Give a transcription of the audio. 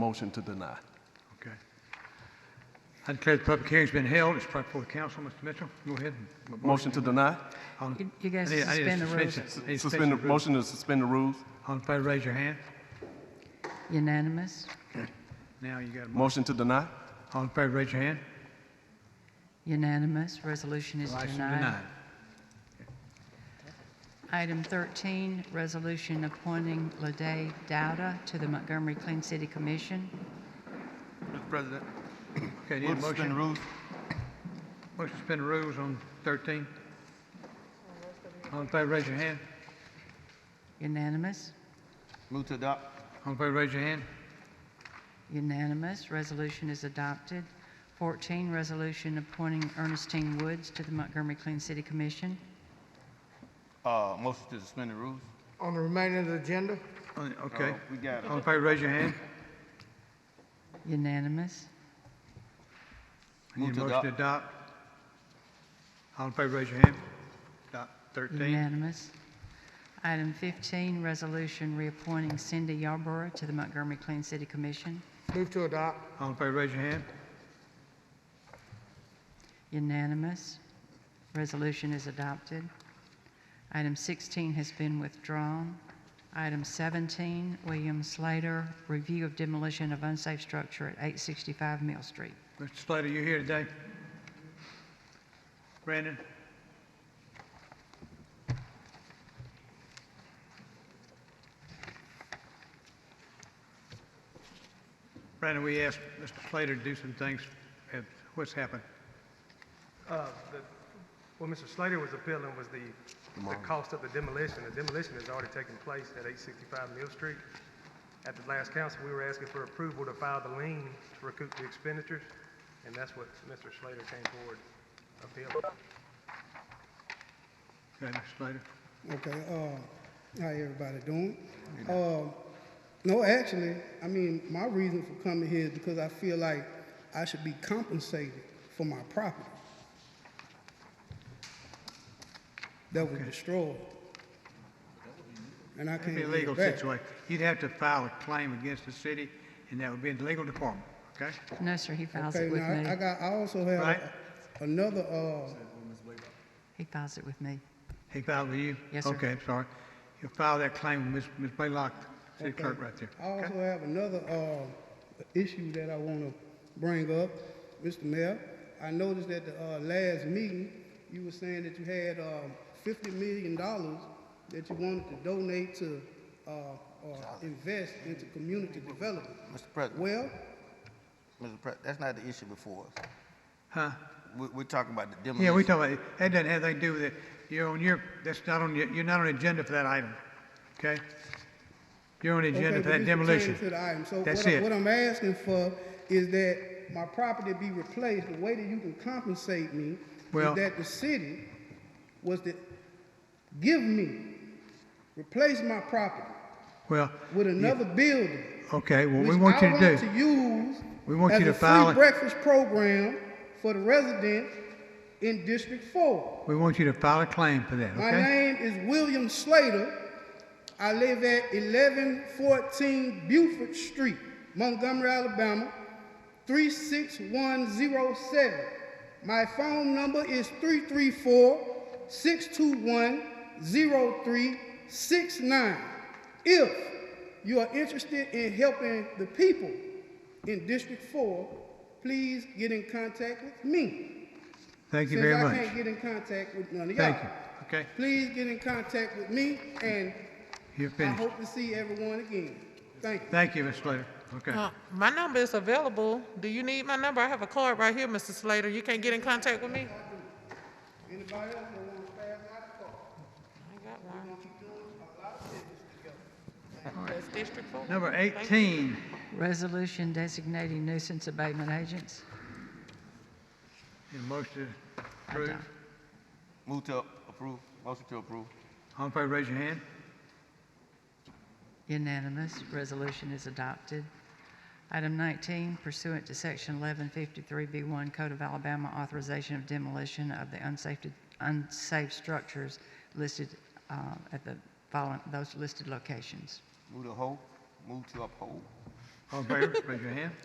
motion to deny. Okay. I declare the public hearing's been held. It's brought before the council. Mr. Mitchell, go ahead. and- uh, Motion to deny? All- You- you guys I need- I need a suspend the rules. suspension- I need a Suspend, the- suspension of rules. motion to suspend the rules? All in favor, raise your hand. Unanimous? Now you got a, mo- Motion to deny? all in favor, raise your hand. Unanimous. Resolution is License denied. denied. Item 13, resolution appointing Lede Dowda to the Montgomery Clean City Commission. Mr. President, Okay, need a move to suspend motion? the rules. Motion to suspend the rules on 13. All in favor, raise your hand. Unanimous? Move to adopt. All in favor, raise your hand. Unanimous. Resolution is adopted. 14, resolution appointing Ernestine Woods to the Montgomery Clean City Commission. Uh, motion to suspend the rules. On the remainder of the agenda, On- Okay. Uh, We got, All in favor, raise your hand. Unanimous? Need Move a to motion to adopt. All in favor, raise your hand. Adopt 13. Unanimous. Item 15, resolution reappointing Cindy Yarborough to the Montgomery Clean City Commission. move to adopt. All in favor, raise your hand. Unanimous. Resolution is adopted. Item 16 has been withdrawn. Item 17, William Slater, review of demolition of unsafe structure at 865 Mill Street. Mr. Slater, you here today? Brandon? Brandon, we asked Mr. Slater to do some things. and What's happened? Uh, the- What Mr. Slater was appealing was the, the cost of the demolition. The demolition has already taken place at 865 Mill Street. At the last council, we were asking for approval to file the lien to recoup the expenditures, and that's what Mr. Slater came forward appealing. Okay, Mr. uh, Slater? Okay, uh, how everybody doing? Uh, no, actually, I mean, my reason for coming here is because I feel like I should be compensated for my property that was destroyed. And I It'd can't be a get legal it back. situation. You'd have to file a claim against the city, and that would be in the legal department, okay? No, sir, he files Okay, it with now, I me. got, I also have Right. another, uh, He files it with me. He filed with you? Yes, sir. Okay, I'm sorry. You'll file that claim with Ms. Ms. Blaylock, city Okay. clerk right there. I also have another uh, issue that I want to bring up, Mr. Mayor. I noticed at the uh, last meeting, you were saying that you had uh, $50 million that you wanted to donate to uh, or invest into community development. Mr. President, Well, Mr. President, that's not the issue before us. Huh? We, we're talking about the demolition. Yeah, we talking about, that doesn't have anything to do with it. You're on your, that's not on, your- you're not on the agenda for that item, okay? You're on the okay, agenda but for that this pertains demolition. to the item. So That's what I- it. What I'm asking for is that my property be replaced. The way that you can compensate me Well- is that the city was to give me, replace my property Well, with another building. okay, what we which want I you to want do, to use We want as you to a file it- free breakfast program for the residents in District Four. we want you to file a claim for that, My okay? name is William Slater. I live at 1114 Buford Street, Montgomery, Alabama, 36107. My phone number is 334-621-0369. If you are interested in helping the people in District 4, please get in contact with me. Thank you Since very I can't much. get in contact with none of y'all. Thank you, okay? Please get in contact with me, and You're I finished. hope to see everyone again. Thank you. Thank you, Mr. Slater, okay. Uh, My number is available. Do you need my number? I have a card right here, Mr. Slater. You can't get in contact with me? Anybody else that wants to pass out the call? I got one. That's District Four. Number Thank you. 18, Resolution designating nuisance abatement agents. your motion to approve. Adopt. Move to approve, motion to approve. All in favor, raise your hand. Unanimous. Resolution is adopted. Item 19, pursuant to Section 1153B1 Code of Alabama, authorization of demolition of the unsafe, unsafe structures listed uh, at the following, those listed locations. Move to hold, move to uphold. All in favor, raise your hand.